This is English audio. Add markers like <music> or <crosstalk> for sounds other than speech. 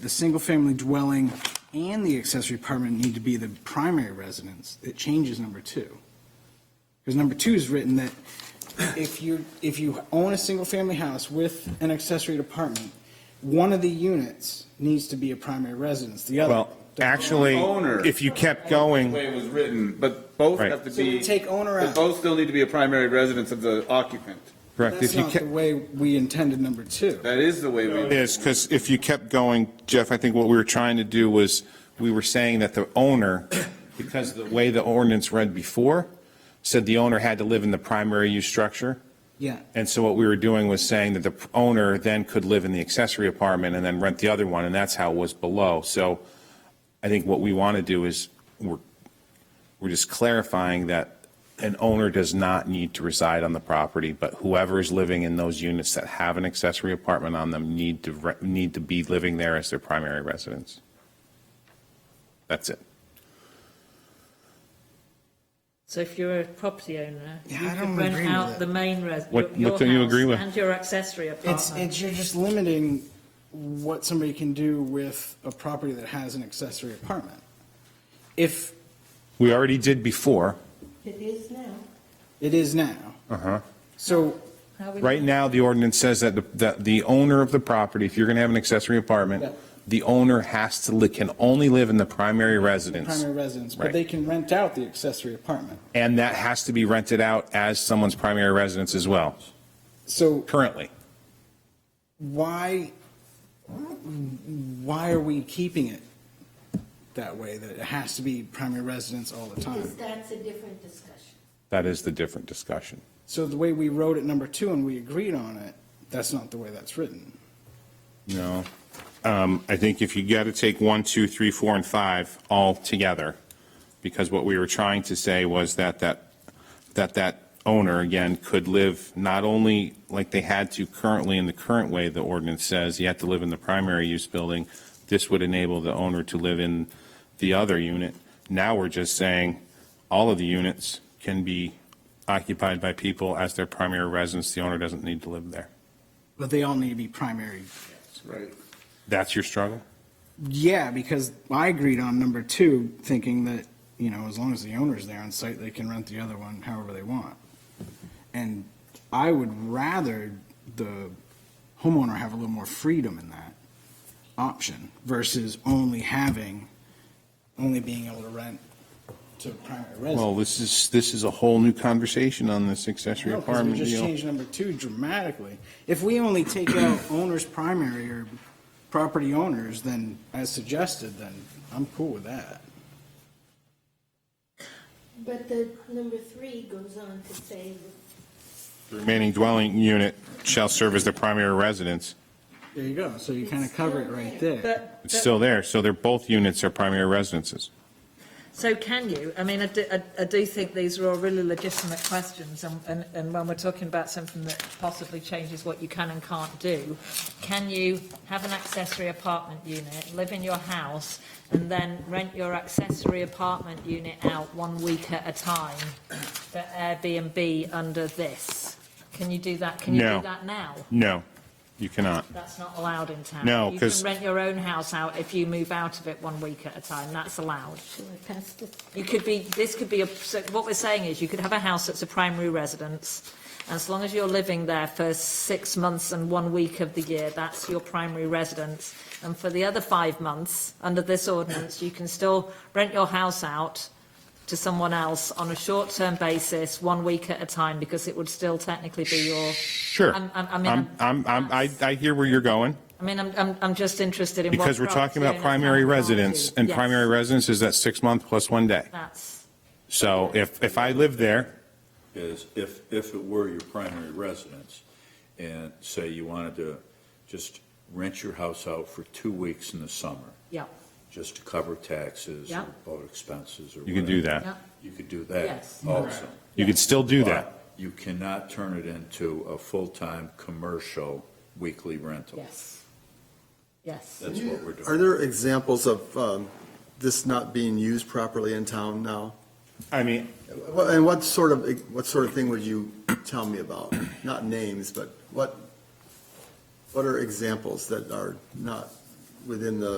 The single-family dwelling and the accessory apartment need to be the primary residence. It changes number two. Because number two is written that if you, if you own a single-family house with an accessory apartment, one of the units needs to be a primary residence, the other. Well, actually, Owner. if you kept The way going, it was written, but both Right. have to So we be, take owner but out. both still need to be a primary residence of the occupant. correct, That's if you not the kept, way we intended number two. That is the way we. is, because if you kept going, Jeff, I think what we were trying to do was, we were saying that the owner, because of the way the ordinance read before, said the owner had to live in the primary use structure. Yeah. And so what we were doing was saying that the owner then could live in the accessory apartment and then rent the other one, and that's how it was below. So I think what we want to do is, we're, we're just clarifying that an owner does not need to reside on the property, but whoever is living in those units that have an accessory apartment on them need to, re- need to be living there as their primary residence. That's it. So if you're a property owner, Yeah, you I don't could rent agree with out it. the main res, your What- your what do you house agree with? and your accessory It's, apartment. it's, you're just limiting what somebody can do with a property that has an accessory apartment. If We already did before. It is now. it is now. Uh-huh. So, How would Right you- now, the ordinance says that, the- that the owner of the property, if you're going to have an accessory Yeah. apartment, the owner has to, li- can only live in the primary residence, primary residence, but Right. they can rent out the accessory apartment. and that has to be rented out as someone's primary residence as well, So currently. why, why are we keeping it that way, that it has to be primary residence all the time? Because that's a different discussion. That is the different discussion. So the way we wrote it number two and we agreed on it, that's not the way that's written. No. Um, I think if you got to take one, two, three, four, and five all together, because what we were trying to say was that that, that that owner, again, could live not only like they had to currently in the current way the ordinance says, you have to live in the primary use building. This would enable the owner to live in the other unit. Now we're just saying all of the units can be occupied by people as their primary residence. The owner doesn't need to live there. But they all need to be primary. Right. That's your struggle? Yeah, because I agreed on number two, thinking that, you know, as long as the owner's there on site, they can rent the other one however they want. And I would rather the homeowner have a little more freedom in that option versus only having, only being able to rent to a primary residence. Well, this is, this is a whole new conversation on this accessory No, 'cause apartment we just deal. changed number two dramatically. If we only take <coughs> out owners primary or property owners, then as suggested, then I'm cool with that. But the number three goes on to say, The Remaining dwelling unit shall serve as the primary residence. There you go. So you kind of cover it right there. But, It's but- still there, so they're, both units are primary residences. so can you? I mean, I do, I, I do think these are all really legitimate questions and, and, and when we're talking about something that possibly changes what you can and can't do, can you have an accessory apartment unit, live in your house and then rent your accessory apartment unit out one week at a time for Airbnb under this? Can you do that? Can you No. do that now? No, you cannot. That's not allowed in town. No, You 'cause- can rent your own house out if you move out of it one week at a time, that's allowed. shall I pass the You could be, this could be, a. so what we're saying is you could have a house that's a primary residence, and as long as you're living there for six months and one week of the year, that's your primary residence. And for the other five months, under this ordinance, you can still rent your house out to someone else on a short-term basis, one week at a time, because it would still technically be your, Sure. I'm- I'm- I mean, I'm, I'm, I'm- I, I hear where you're going, I mean, I'm, I'm, I'm just interested in what. because we're talking property about owners primary can and can't residence, do. and Yes. primary residence is that six month plus one day. That's, So if, if I live there, is if, if it were your primary residence, and say you wanted to just rent your house out for two weeks in the summer, yeah, just to cover taxes Yeah. or boat expenses or you could do whatever, yeah, that. You could do that Yes. also. You could still do that. But You cannot turn it into a full-time, commercial, weekly rental. yes, yes. That's what we're doing. Are there examples of um, this not being used properly in town now? I mean, What- And what sort of, what sort of thing would you tell me about? Not names, but what, what are examples that are not within the